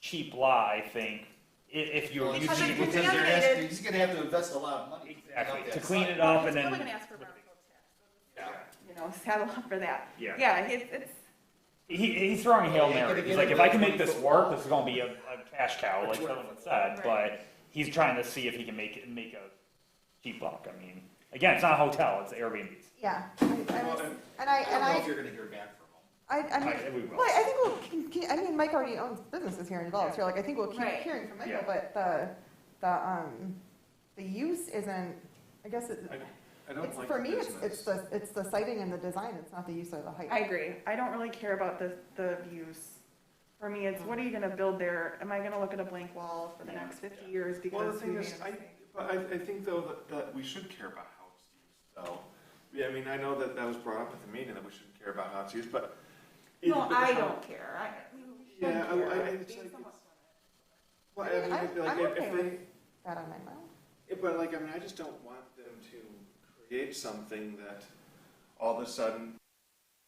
cheap lie thing, i- if you're Well, using he's it gonna- because he's they're gonna asking. ask- He's gonna have to invest a lot of money. Exactly, Not to that clean side. it up and We're gonna then, ask for roundtable tips, Yeah. you know, saddle up for that. Yeah. Yeah, it's, it's, he, he's throwing Hail Yeah, he Mary, could've he's like, given if I can him the make this 24 work, this is gonna be a, a cash cow, like Which someone works. said, but Right. he's trying to see if he can make it, make a cheap buck, I mean, again, it's not a hotel, it's Airbnb's. Yeah, I, I was, and I, I don't and know if I, you're gonna hear back from him. I, I I- we mean, will. well, I think we'll, keep- keep- I mean, Mike already owns businesses here in Dulles, so like, I think we'll keep Right. hearing from Michael, Yeah. but the, the, um, the use isn't, I guess it, I don't it's, like for the me, it's, it's business. the, it's the sighting and the design, it's not the use or the height. I agree. I don't really care about the, the views. For me, it's what are you gonna build there? Am I gonna look at a blank wall for the next fifty years Well, the because we thing made a is, I, mistake? but I, I think though that, that we should care about how it's used, though. Yeah, I mean, I know that that was brought up at the meeting, that we shouldn't care about how it's used, but. No, but I how- don't care. I. Yeah, I- don't care. I- I- it's Being like- someone- Well, I mean, I'm- like, I'm if, okay if with- they, That on my mind. Yeah, but like, I mean, I just don't want them to create something that all of a sudden